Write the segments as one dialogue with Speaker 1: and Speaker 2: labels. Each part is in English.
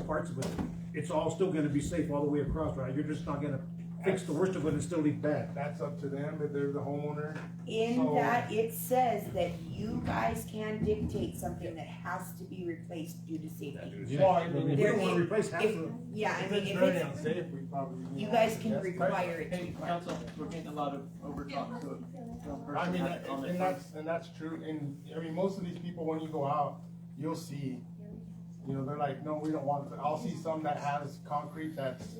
Speaker 1: parts of it, it's all still gonna be safe all the way across, right? You're just not gonna fix the worst of it and still leave bad.
Speaker 2: That's up to them, if they're the homeowner,
Speaker 3: In
Speaker 2: So-
Speaker 3: that, it says that you guys can dictate something that has to be replaced due to safety.
Speaker 1: Yeah.
Speaker 2: Well, I
Speaker 1: I mean, If
Speaker 2: mean,
Speaker 1: we
Speaker 3: There
Speaker 1: don't wanna
Speaker 3: is-
Speaker 1: replace half
Speaker 3: If,
Speaker 1: of it.
Speaker 3: yeah, I
Speaker 2: if
Speaker 3: mean,
Speaker 2: it's
Speaker 3: if
Speaker 2: very
Speaker 3: it's,
Speaker 2: unsafe, um, we probably.
Speaker 3: you guys can
Speaker 2: That's
Speaker 3: require it to be
Speaker 4: Hey,
Speaker 3: part.
Speaker 4: council, we're getting a lot of overtalk, so. one
Speaker 2: I
Speaker 4: person
Speaker 2: mean, uh,
Speaker 4: has to
Speaker 2: and
Speaker 4: comment first.
Speaker 2: and that's, and that's true, and, I mean, most of these people, when you go out, you'll see, you know, they're like, no, we don't want it, I'll see some that has concrete that's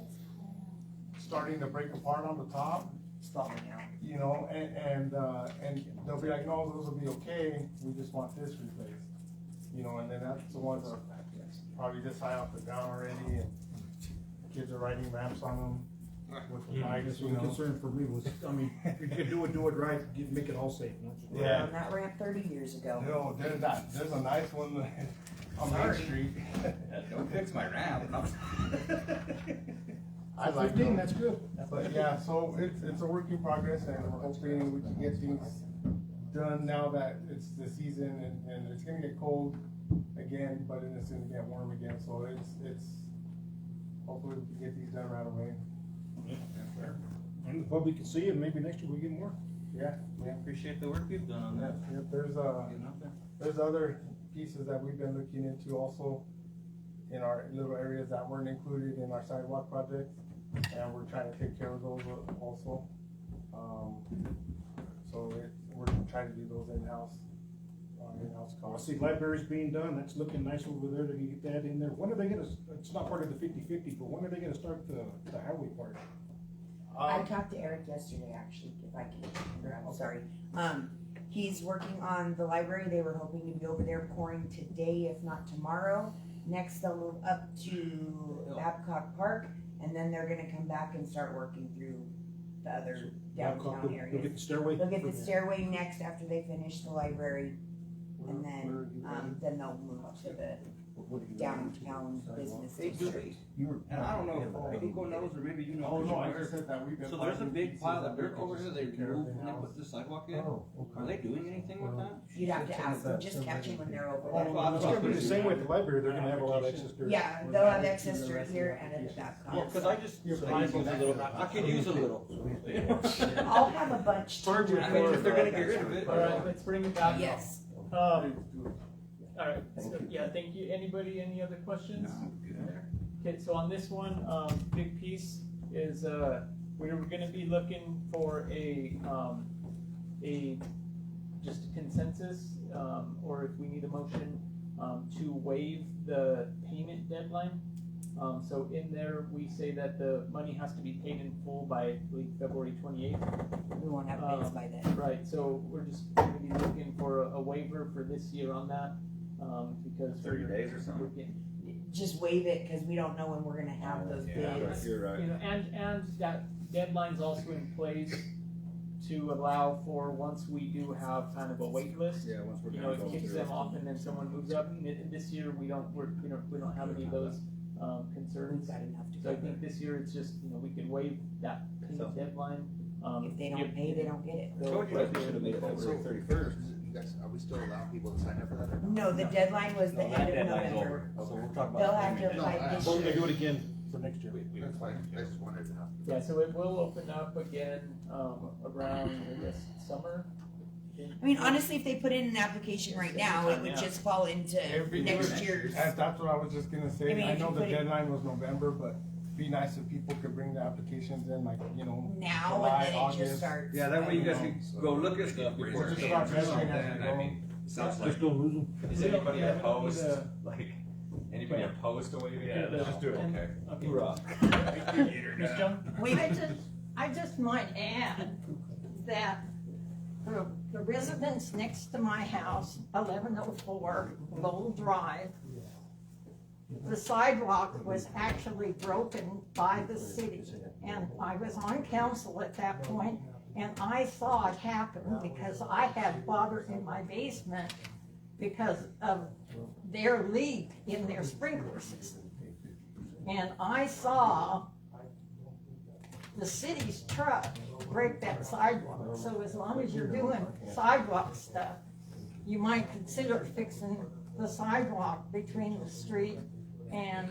Speaker 2: starting to break apart on the top,
Speaker 3: Falling out.
Speaker 2: you know, and, and, uh, and they'll be like, no, those will be okay, we just want this replaced. You know, and then that's the ones that probably this high off the ground already, and kids are riding ramps on them with the bikes,
Speaker 1: That's
Speaker 2: you
Speaker 1: what the
Speaker 2: know.
Speaker 1: concern for me was, I mean, if you could do it, do it right, get- make it all safe.
Speaker 2: Yeah.
Speaker 3: On that ramp thirty years ago.
Speaker 2: No, there's that, there's a nice one on Main
Speaker 3: Sorry.
Speaker 2: Street.
Speaker 5: Don't fix my ramp.
Speaker 2: I like
Speaker 1: Fifteen,
Speaker 2: that,
Speaker 1: that's good.
Speaker 2: but yeah, so it's, it's a work in progress and we're hoping we can get things done now that it's the season and, and it's gonna get cold again, but then it's gonna get warm again, so it's, it's, hopefully we can get these done right away.
Speaker 1: And the public can see it, maybe next year we get more.
Speaker 2: Yeah, yeah,
Speaker 4: Appreciate the work we've done on
Speaker 2: yeah,
Speaker 4: that.
Speaker 2: yeah, there's a.
Speaker 4: Getting out there.
Speaker 2: There's other pieces that we've been looking into also in our little areas that weren't included in our sidewalk project, and we're trying to take care of those also. Um, so it, we're trying to do those in-house, uh, in-house
Speaker 1: Oh, I
Speaker 2: costs.
Speaker 1: see libraries being done, that's looking nice over there, they can get that in there. When are they gonna, it's not part of the fifty-fifty, but when are they gonna start the, the highway part?
Speaker 3: I
Speaker 2: Um,
Speaker 3: talked to Eric yesterday, actually, if I can, remember, I'm
Speaker 2: Okay.
Speaker 3: sorry. Um, he's working on the library, they were hoping to be over there pouring today, if not tomorrow. Next, they'll move up to Babcock Park, and then they're gonna come back and start working through the other downtown
Speaker 1: You'll
Speaker 3: areas.
Speaker 1: get the stairway?
Speaker 3: They'll get the stairway next after they finish the library, and then, um, then they'll move up to the downtown business
Speaker 5: Hey, do
Speaker 3: district.
Speaker 5: we, and I don't know, if Hugo knows or maybe you know.
Speaker 2: Oh, no, I
Speaker 5: Where-
Speaker 2: just said that we've been.
Speaker 4: So there's a
Speaker 2: finding
Speaker 4: big
Speaker 2: pieces
Speaker 4: pile
Speaker 2: that
Speaker 4: of
Speaker 2: we
Speaker 4: dirt
Speaker 2: can
Speaker 4: over there
Speaker 2: just
Speaker 4: they
Speaker 2: take care of
Speaker 4: removed when they
Speaker 2: in-house.
Speaker 4: put the sidewalk in?
Speaker 2: Oh,
Speaker 4: Are they doing anything with that?
Speaker 3: You'd have to
Speaker 2: Something
Speaker 3: ask them,
Speaker 2: that
Speaker 3: just
Speaker 2: somebody-
Speaker 3: catch them when they're over
Speaker 2: Oh,
Speaker 3: there.
Speaker 4: Well, I
Speaker 1: It's gonna be the same way at the library, they're gonna have a lot of access to it.
Speaker 3: Yeah, they'll have access to it here and at the
Speaker 4: Well,
Speaker 3: Babcock.
Speaker 4: cause I just,
Speaker 2: Yeah, but
Speaker 4: I
Speaker 2: I
Speaker 4: use a
Speaker 2: think that's
Speaker 4: little,
Speaker 2: a-
Speaker 4: I could use a little.
Speaker 3: I'll have a bunch.
Speaker 4: I
Speaker 3: to-
Speaker 4: mean, if they're gonna get rid of it.
Speaker 2: All right,
Speaker 6: let's bring it back.
Speaker 3: Yes.
Speaker 6: Um,
Speaker 1: uh,
Speaker 6: alright, so, yeah, thank you. Anybody, any other questions? Okay, so on this one, um, big piece is, uh, we're gonna be looking for a, um, a, just a consensus, um, or if we need a motion, um, to waive the payment deadline. Um, so in there, we say that the money has to be paid in full by, I believe, February twenty-eighth.
Speaker 3: We won't have bids by then.
Speaker 6: Right, so we're just gonna be looking for a- a waiver for this year on that, um, because.
Speaker 5: Thirty
Speaker 6: we're-
Speaker 5: days or
Speaker 6: we're
Speaker 5: something.
Speaker 6: getting-
Speaker 3: Just waive it, cause we don't know when we're gonna have those
Speaker 5: Yeah,
Speaker 3: bids.
Speaker 5: You're right.
Speaker 6: You know, and, and that deadline's also in place to allow for, once we do have kind of a wait list,
Speaker 5: Yeah, once we're
Speaker 6: you know,
Speaker 5: done
Speaker 6: it
Speaker 5: going
Speaker 6: kicks
Speaker 5: through.
Speaker 6: them off and then someone moves up, and it- this year, we don't, we're, you know, we don't have any of those, um,
Speaker 3: We've
Speaker 6: concerns.
Speaker 3: got enough to
Speaker 6: So I
Speaker 3: go.
Speaker 6: think this year, it's just, you know, we could waive that payment deadline, um.
Speaker 3: If they
Speaker 6: give-
Speaker 3: don't pay, they don't get it.
Speaker 6: they'll-
Speaker 5: Told you guys we should have made it
Speaker 6: So-
Speaker 5: February thirty-first.
Speaker 7: You guys, are we still allowing people to sign up for that or not?
Speaker 3: No, the deadline was the
Speaker 5: No, that
Speaker 3: end of
Speaker 5: deadline's
Speaker 3: November.
Speaker 5: So we're talking about.
Speaker 3: They'll have to
Speaker 5: payment.
Speaker 3: apply this
Speaker 1: Well, they
Speaker 3: year.
Speaker 1: do it again for next year.
Speaker 7: That's fine, I just wanted to know.
Speaker 6: Yeah, so it will open up again, um, around, I guess, summer.
Speaker 3: I mean, honestly, if they put in an application right now, it would
Speaker 6: Yeah.
Speaker 3: just fall into
Speaker 2: Every
Speaker 3: next
Speaker 2: year.
Speaker 3: year's.
Speaker 2: That's, that's what I was just gonna
Speaker 3: I
Speaker 2: say,
Speaker 3: mean,
Speaker 2: I
Speaker 3: if you
Speaker 2: know the
Speaker 3: put it-
Speaker 2: deadline was November, but be nice if people could bring the applications in, like, you know.
Speaker 3: now
Speaker 2: July,
Speaker 3: and then it
Speaker 2: August.
Speaker 3: just starts.
Speaker 5: Yeah, that way you guys
Speaker 2: I
Speaker 5: can go look at stuff
Speaker 7: Raise
Speaker 5: before.
Speaker 7: our
Speaker 2: Just
Speaker 5: it's
Speaker 2: about
Speaker 5: done.
Speaker 2: measuring as we
Speaker 5: And I
Speaker 2: go.
Speaker 5: mean, Sounds like,
Speaker 1: Just don't lose them.
Speaker 5: is
Speaker 6: We don't-
Speaker 5: anybody
Speaker 6: yeah, we don't
Speaker 5: opposed,
Speaker 6: need a-
Speaker 5: like, anybody opposed to waiving
Speaker 6: Yeah,
Speaker 5: it?
Speaker 6: no.
Speaker 5: Let's just do it,
Speaker 6: And-
Speaker 5: okay.
Speaker 6: Okay.
Speaker 5: Hoorah.
Speaker 6: Ms. Jones?
Speaker 3: Wait,
Speaker 8: I just, I just might add that the the residents next to my house, eleven oh four Lowell Drive, the sidewalk was actually broken by the city. And I was on council at that point, and I saw it happen because I had water in my basement because of their leak in their sprinkler system. And I saw the city's truck break that sidewalk, so as long as you're doing sidewalk stuff, you might consider fixing the sidewalk between the street and